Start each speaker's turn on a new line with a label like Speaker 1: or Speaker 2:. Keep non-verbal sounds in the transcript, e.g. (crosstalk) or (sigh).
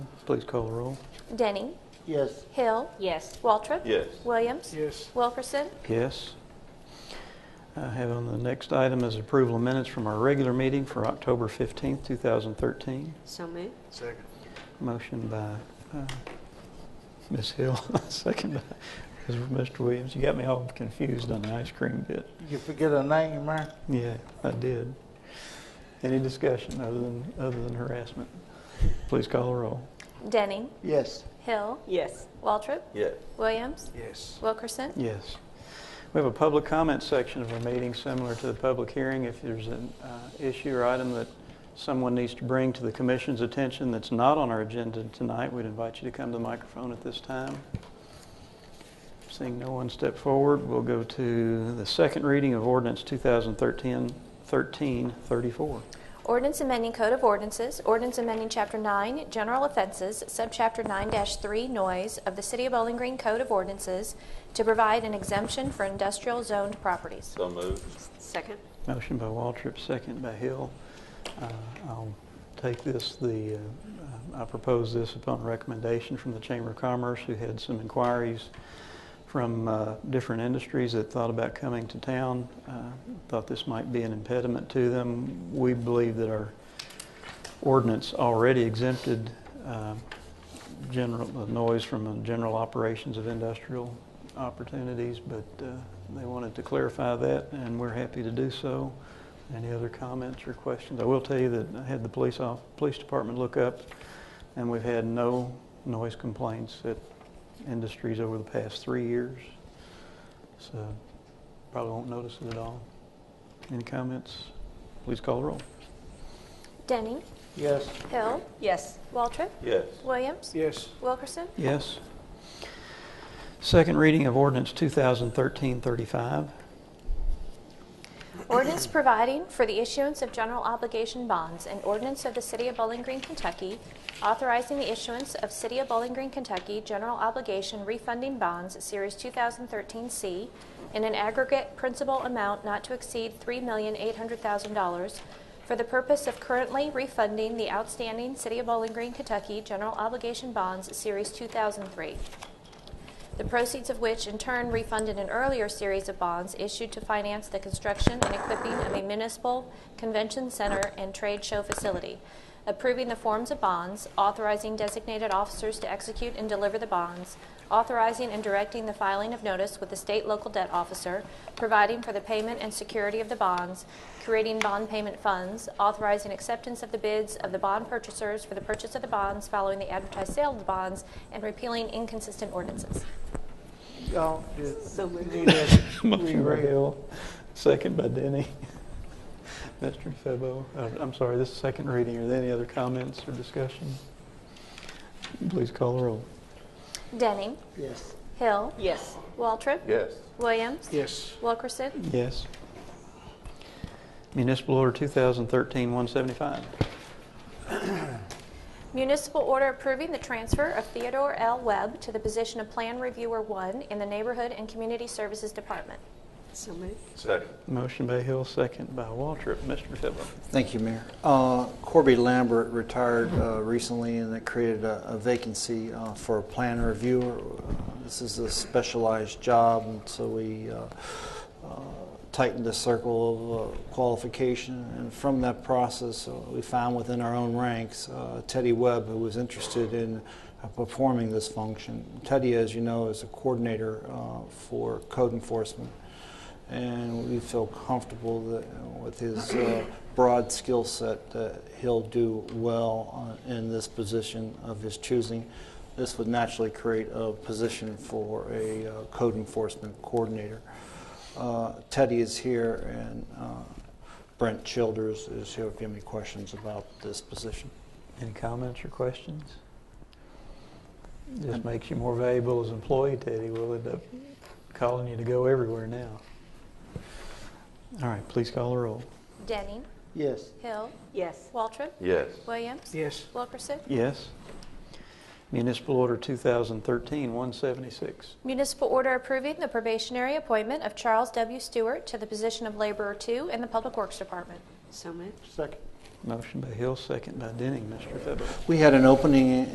Speaker 1: Please call the roll.
Speaker 2: Denny.
Speaker 3: Yes.
Speaker 2: Hill.
Speaker 4: Yes.
Speaker 2: Waltrip.
Speaker 5: Yes.
Speaker 2: Williams.
Speaker 3: Yes.
Speaker 2: Wilkerson.
Speaker 1: Yes. I have on the next item is approval of minutes from our regular meeting for October 15th, 2013.
Speaker 4: So moved.
Speaker 3: Second.
Speaker 1: Motion by uh, Ms. Hill, (laughs) second by Mr. Williams. You got me all confused on the ice cream bit.
Speaker 3: You forget a name, man?
Speaker 1: Yeah, I did. Any discussion other than, other than harassment? Please call the roll.
Speaker 2: Denny.
Speaker 3: Yes.
Speaker 2: Hill.
Speaker 4: Yes.
Speaker 2: Waltrip.
Speaker 5: Yes.
Speaker 2: Williams.
Speaker 3: Yes.
Speaker 2: Wilkerson.
Speaker 1: Yes. We have a public comment section of our meeting similar to the public hearing. If there's an uh, issue or item that someone needs to bring to the commission's attention that's not on our agenda tonight, we'd invite you to come to the microphone at this time. Seeing no one step forward, we'll go to the second reading of ordinance 2013, 1334.
Speaker 2: Ordinance amending Code of Ordinances, ordinance amending Chapter 9, General Offenses, Subchapter 9-3, Noise of the City of Bowling Green Code of Ordinances to provide an exemption for industrial zoned properties.
Speaker 5: So moved.
Speaker 4: Second.
Speaker 1: Motion by Waltrip, second by Hill. Uh, I'll take this, the, uh, I propose this upon recommendation from the Chamber of Commerce, who had some inquiries from uh, different industries that thought about coming to town, uh, thought this might be an impediment to them. We believe that our ordinance already exempted uh, general, the noise from the general operations of industrial opportunities, but uh, they wanted to clarify that, and we're happy to do so. Any other comments or questions? I will tell you that I had the police off, police department look up, and we've had no noise complaints at industries over the past three years. So probably won't notice it at all. Any comments? Please call the roll.
Speaker 2: Denny.
Speaker 3: Yes.
Speaker 2: Hill.
Speaker 4: Yes.
Speaker 2: Waltrip.
Speaker 5: Yes.
Speaker 2: Williams.
Speaker 3: Yes.
Speaker 2: Wilkerson.
Speaker 1: Yes. Second reading of ordinance 2013-35.
Speaker 2: Ordinance providing for the issuance of general obligation bonds and ordinance of the City of Bowling Green, Kentucky, authorizing the issuance of City of Bowling Green, Kentucky general obligation refunding bonds, Series 2013C, in an aggregate principal amount not to exceed $3,800,000 for the purpose of currently refunding the outstanding City of Bowling Green, Kentucky general obligation bonds, Series 2003 the proceeds of which in turn refunded an earlier series of bonds issued to finance the construction and equipping of a municipal convention center and trade show facility, approving the forms of bonds, authorizing designated officers to execute and deliver the bonds, authorizing and directing the filing of notice with the state local debt officer, providing for the payment and security of the bonds, creating bond payment funds, authorizing acceptance of the bids of the bond purchasers for the purchase of the bonds following the advertised sale of the bonds, and repealing inconsistent ordinances.
Speaker 3: Y'all did.
Speaker 4: So moved.
Speaker 3: need that
Speaker 1: (laughs) Motion by
Speaker 3: reread.
Speaker 1: Hill, second by Denny. Mr. Febo, uh, I'm sorry, this is second reading. Are there any other comments or discussion? Please call the roll.
Speaker 2: Denning.
Speaker 3: (laughs) Yes.
Speaker 2: Hill.
Speaker 4: Yes.
Speaker 2: Waltrip.
Speaker 5: Yes.
Speaker 2: Williams.
Speaker 3: Yes.
Speaker 2: Wilkerson.
Speaker 1: Yes. Municipal Order 2013-175.
Speaker 2: Municipal order approving the transfer of Theodore L. Webb to the position of Plan Reviewer 1 in the Neighborhood and Community Services Department.
Speaker 4: So moved.
Speaker 5: Second.
Speaker 1: Motion by Hill, second by Waltrip. Mr. Febo.
Speaker 6: Thank you, Mayor. Uh, Corby Lambert retired uh, recently, and that created a a vacancy uh, for a plan reviewer. Uh, This is a specialized job, and so we uh, uh, tightened the circle of uh, qualification. And from that process, uh, we found within our own ranks uh, Teddy Webb, who was interested in uh, performing this function. Teddy, as you know, is a coordinator uh, for code enforcement and we feel comfortable that uh, with his uh, broad skill set that he'll do well uh, in this position of his choosing. This would naturally create a position for a uh, code enforcement coordinator. Uh, Teddy is here, and uh, Brent Childers is here if you have any questions about this position.
Speaker 1: Any comments or questions? Just makes you more valuable as an employee, Teddy. We'll end up calling you to go everywhere now. All right, please call the roll.
Speaker 2: Denning.
Speaker 3: Yes.
Speaker 2: Hill.
Speaker 4: Yes.
Speaker 2: Waltrip.
Speaker 5: Yes.
Speaker 2: Williams.
Speaker 3: Yes.
Speaker 2: Wilkerson.
Speaker 1: Yes. Municipal Order 2013-176.
Speaker 2: Municipal order approving the probationary appointment of Charles W. Stewart to the position of Laborer 2 in the Public Works Department.
Speaker 4: So moved.
Speaker 3: Second.
Speaker 1: Motion by Hill, second by Denning. Mr. Febo.
Speaker 6: We had an opening